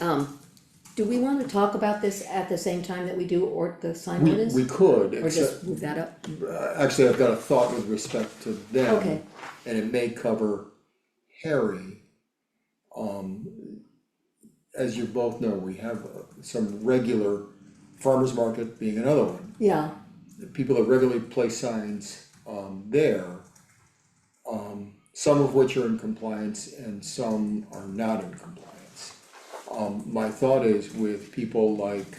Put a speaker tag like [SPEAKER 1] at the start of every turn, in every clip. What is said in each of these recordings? [SPEAKER 1] Um, do we wanna talk about this at the same time that we do or the sign
[SPEAKER 2] We,
[SPEAKER 1] ordinance?
[SPEAKER 2] we could,
[SPEAKER 1] Or just
[SPEAKER 2] except, uh,
[SPEAKER 1] move that up?
[SPEAKER 2] actually, I've got a thought with respect to them.
[SPEAKER 1] Okay.
[SPEAKER 2] And it may cover Harry. Um, as you both know, we have uh, some regular farmer's market being another one.
[SPEAKER 1] Yeah,
[SPEAKER 2] the people that regularly place signs um there. Um, some of which are in compliance and some are not in compliance. Um, my thought is with people like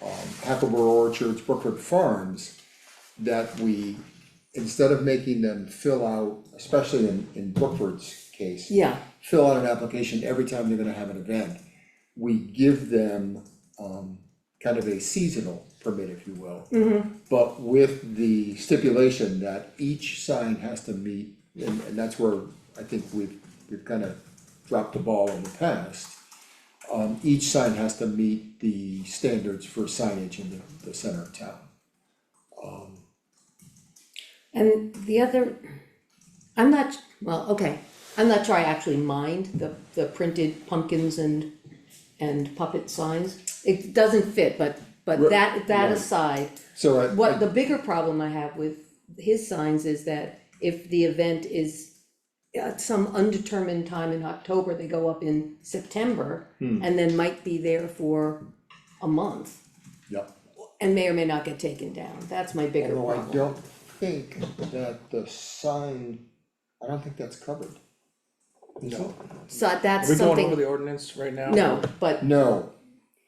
[SPEAKER 2] um Hackleboro Orchards, Brookwood Farms, that we, instead of making them fill out, especially in in Brookwood's case.
[SPEAKER 1] yeah,
[SPEAKER 2] Fill out an application every time they're gonna have an event. We give them um kind of a seasonal permit, if you will. But with the stipulation that each sign has to meet, and, and that's where I think we've, we've kind of dropped the ball in the past. Um, each sign has to meet the standards for signage in the, the center of town.
[SPEAKER 1] and the other, I'm not, well, okay, I'm not sure I actually mind the, the printed pumpkins and, and puppet signs. It doesn't fit, but, but
[SPEAKER 2] Right,
[SPEAKER 1] that, that
[SPEAKER 2] right.
[SPEAKER 1] aside,
[SPEAKER 2] So I,
[SPEAKER 1] What
[SPEAKER 2] I,
[SPEAKER 1] the bigger problem I have with his signs is that if the event is at some undetermined time in October, they go up in September
[SPEAKER 3] Hmm.
[SPEAKER 1] and then might be there for a month
[SPEAKER 2] yeah,
[SPEAKER 1] and may or may not get taken down. That's my bigger
[SPEAKER 2] although I
[SPEAKER 1] problem.
[SPEAKER 2] don't think that the sign, I don't think that's covered. No.
[SPEAKER 1] So
[SPEAKER 3] Are
[SPEAKER 1] that's
[SPEAKER 3] we going over
[SPEAKER 1] something,
[SPEAKER 3] the ordinance right now?
[SPEAKER 1] no, but
[SPEAKER 2] No,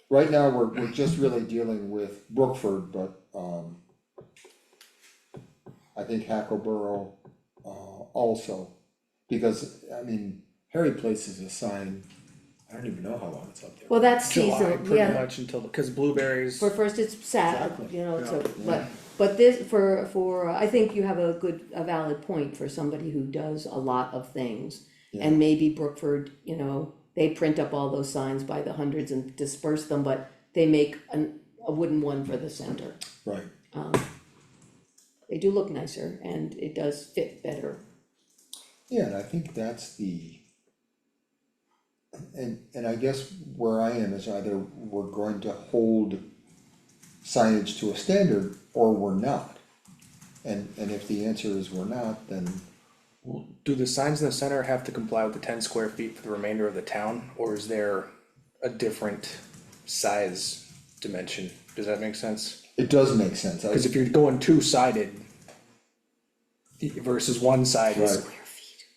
[SPEAKER 2] right now, we're, we're just really dealing with Brookford, but, um. I think Hackleboro, uh, also, because, I mean, Harry places a sign, I don't even know how long it's up there.
[SPEAKER 1] well, that's
[SPEAKER 3] July,
[SPEAKER 1] seasonal,
[SPEAKER 3] pretty
[SPEAKER 1] yeah.
[SPEAKER 3] much until, cause blueberries,
[SPEAKER 1] For first, it's sad,
[SPEAKER 2] Exactly.
[SPEAKER 1] you know, so,
[SPEAKER 3] Yeah.
[SPEAKER 1] but, but this, for, for, I think you have a good, a valid point for somebody who does a lot of things. And maybe Brookford, you know, they print up all those signs by the hundreds and disperse them, but they make an, a wooden one for the center.
[SPEAKER 2] Right,
[SPEAKER 1] They do look nicer and it does fit better.
[SPEAKER 2] yeah, and I think that's the. And, and I guess where I am is either we're going to hold signage to a standard or we're not. And, and if the answer is we're not, then
[SPEAKER 3] do the signs in the center have to comply with the ten square feet for the remainder of the town, or is there a different size dimension? Does that make sense?
[SPEAKER 2] It does make sense, I,
[SPEAKER 3] Cause if you're going two-sided versus one-sided,
[SPEAKER 2] Right.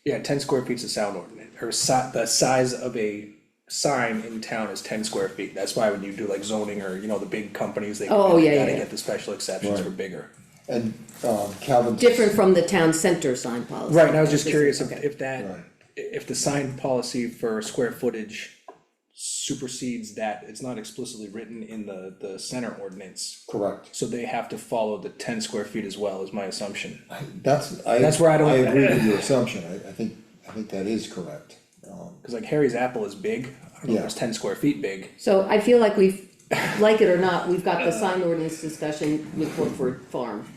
[SPEAKER 3] yeah, ten square feet's a sound ordinance, or si- the size of a sign in town is ten square feet, that's why when you do like zoning or, you know, the big companies, they
[SPEAKER 1] Oh, yeah, yeah,
[SPEAKER 3] gotta
[SPEAKER 1] yeah.
[SPEAKER 3] get the special exceptions for bigger.
[SPEAKER 2] and, um, Calvin's.
[SPEAKER 1] Different from the town center sign policy.
[SPEAKER 3] Right, and I was just
[SPEAKER 1] This is-
[SPEAKER 3] curious if,
[SPEAKER 1] okay.
[SPEAKER 3] if that,
[SPEAKER 2] Right.
[SPEAKER 3] i- if the sign policy for square footage supersedes that, it's not explicitly written in the, the center ordinance.
[SPEAKER 2] Correct,
[SPEAKER 3] So they have to follow the ten square feet as well, is my assumption.
[SPEAKER 2] that's, I.
[SPEAKER 3] That's where I don't-
[SPEAKER 2] I agree with your assumption, I, I think, I think that is correct, um,
[SPEAKER 3] Cause like Harry's apple is big, I don't know if
[SPEAKER 2] Yeah.
[SPEAKER 3] it's ten square feet big,
[SPEAKER 1] So I feel like we've, like it or not, we've got the sign ordinance discussion with Brookford Farm.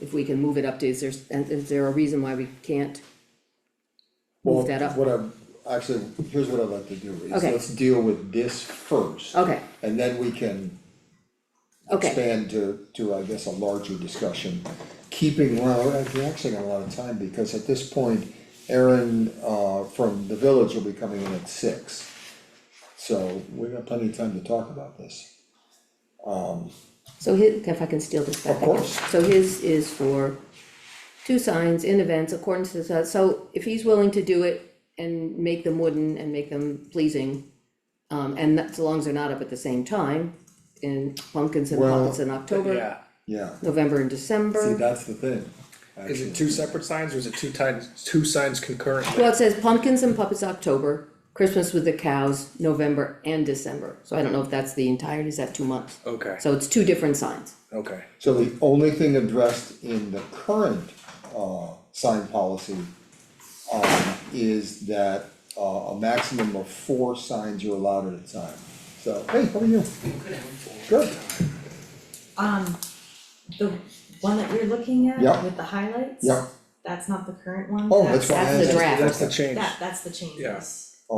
[SPEAKER 1] If we can move it up to, is there, and is there a reason why we can't?
[SPEAKER 2] well,
[SPEAKER 1] that up.
[SPEAKER 2] what I'm, actually, here's what I'd like to do, is
[SPEAKER 1] Okay.
[SPEAKER 2] let's deal with this first.
[SPEAKER 1] Okay,
[SPEAKER 2] And then we can
[SPEAKER 1] okay,
[SPEAKER 2] expand to, to, I guess, a larger discussion, keeping, well, we're actually got a lot of time, because at this point, Aaron, uh, from the village will be coming in at six. So we've got plenty of time to talk about this.
[SPEAKER 1] so his, if I can steal this back.
[SPEAKER 2] Of course.
[SPEAKER 1] So his is for two signs in events according to, the- so if he's willing to do it and make them wooden and make them pleasing, um, and that, so long as they're not up at the same time, in pumpkins and
[SPEAKER 2] Well,
[SPEAKER 1] pumpkins in October,
[SPEAKER 3] yeah.
[SPEAKER 2] Yeah,
[SPEAKER 1] November and December.
[SPEAKER 2] see, that's the thing.
[SPEAKER 3] Is
[SPEAKER 2] actually.
[SPEAKER 3] it two separate signs or is it two times, two signs concurrently?
[SPEAKER 1] Well, it says pumpkins and puppets October, Christmas with the cows, November and December, so I don't know if that's the entirety, is that two months?
[SPEAKER 3] Okay,
[SPEAKER 1] So it's two different signs,
[SPEAKER 3] okay,
[SPEAKER 2] So the only thing addressed in the current, uh, sign policy, um, is that, uh, a maximum of four signs are allowed at a time. So, hey, how are you? Good.
[SPEAKER 4] Um, the one that you're looking at
[SPEAKER 2] Yeah.
[SPEAKER 4] with the highlights?
[SPEAKER 2] Yeah.
[SPEAKER 4] That's not the current one.
[SPEAKER 2] Oh, that's why. I
[SPEAKER 1] That's the
[SPEAKER 2] asked.
[SPEAKER 1] draft.
[SPEAKER 3] that's the change.
[SPEAKER 4] That, that's the changes.